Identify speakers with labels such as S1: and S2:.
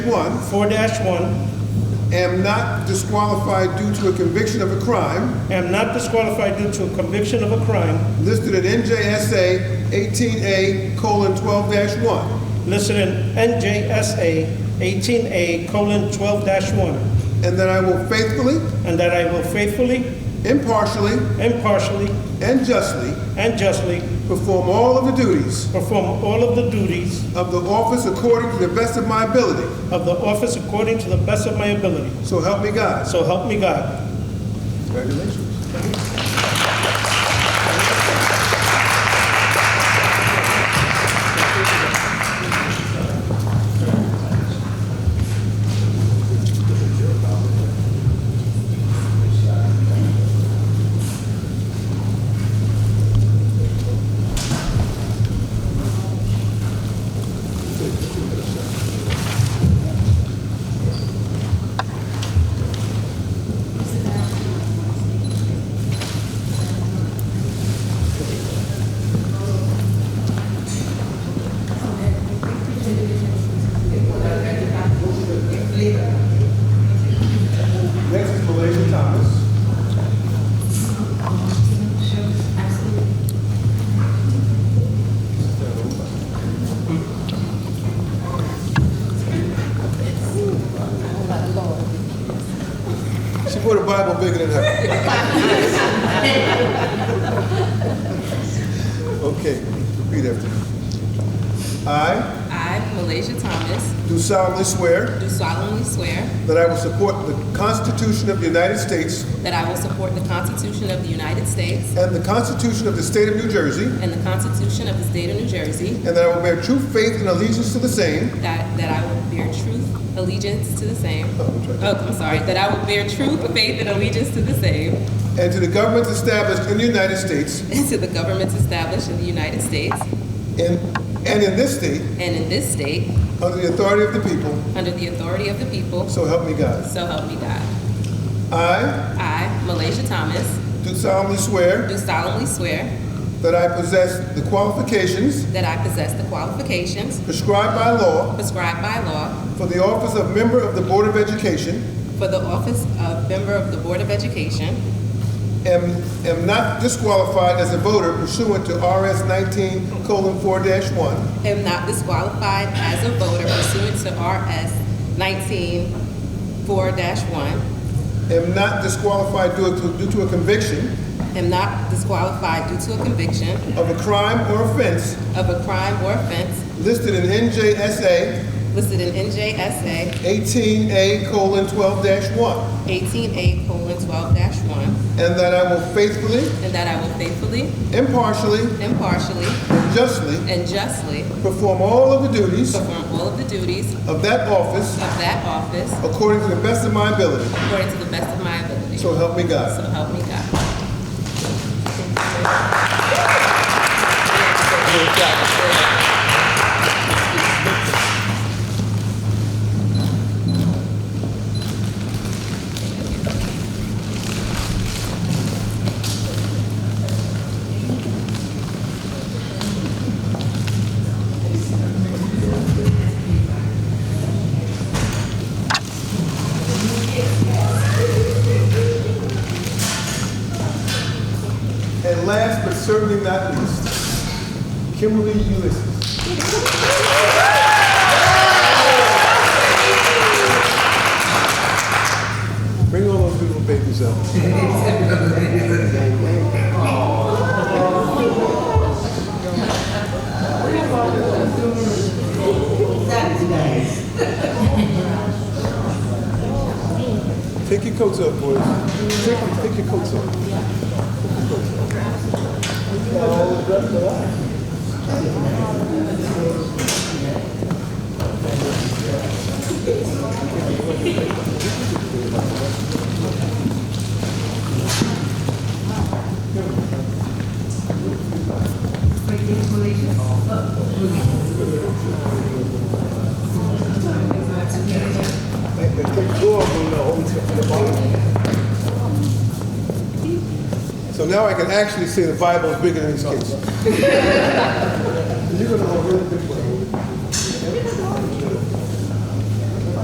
S1: One,
S2: four one,
S1: am not disqualified due to a conviction of a crime
S2: am not disqualified due to a conviction of a crime
S1: listed in NJSA 18A colon 12 1,
S2: listed in NJSA 18A colon 12 one,
S1: and that I will faithfully,
S2: and that I will faithfully,
S1: impartially,
S2: impartially,
S1: and justly
S2: and justly
S1: perform all of the duties
S2: perform all of the duties
S1: of the office according to the best of my ability.
S2: of the office according to the best of my ability.
S1: So help me God.
S2: So help me God.
S1: Congratulations. Next is Malaysia Thomas. She put a Bible bigger than her. Okay, repeat after me. I
S3: I, Malaysia Thomas,
S1: do solemnly swear
S3: do solemnly swear
S1: that I will support the Constitution of the United States
S3: that I will support the Constitution of the United States
S1: and the Constitution of the State of New Jersey,
S3: and the Constitution of the State of New Jersey,
S1: and that I will bear true faith and allegiance to the same
S3: that, that I will bear truth, allegiance to the same. Oh, I'm sorry, that I will bear true faith, and allegiance to the same,
S1: and to the governments established in the United States
S3: and to the governments established in the United States
S1: and, and in this state
S3: and in this state,
S1: under the authority of the people,
S3: under the authority of the people,
S1: so help me God.
S3: so help me God.
S1: I
S3: I, Malaysia Thomas,
S1: do solemnly swear
S3: do solemnly swear
S1: that I possess the qualifications
S3: that I possess the qualifications
S1: prescribed by law
S3: prescribed by law
S1: for the office of member of the Board of Education,
S3: For the office of member of the Board of Education,
S1: am, am not disqualified as a voter pursuant to RS 19 colon 4 1,
S3: am not disqualified as a voter pursuant to RS 19-4-1,
S1: am not disqualified due to, due to a conviction
S3: am not disqualified due to a conviction
S1: of a crime or offense
S3: of a crime or offense
S1: listed in NJSA
S3: listed in NJSA
S1: 18A colon 12 1,
S3: 18A:12-1,
S1: and that I will faithfully,
S3: and that I will faithfully,
S1: impartially,
S3: impartially,
S1: and justly
S3: and justly
S1: perform all of the duties
S3: perform all of the duties of
S1: of that office
S3: that office
S1: according to the best of my ability.
S3: according to the best of my ability.
S1: So help me God.
S3: So help me God.
S1: And last but certainly not least, Kimberly Ulysses. Bring all those beautiful babies up. Take your coats up, boys. Take, take your coats up. Take two of them, no, from the bottom. So now I can actually say the Bible is bigger than these kids. You're gonna go really big.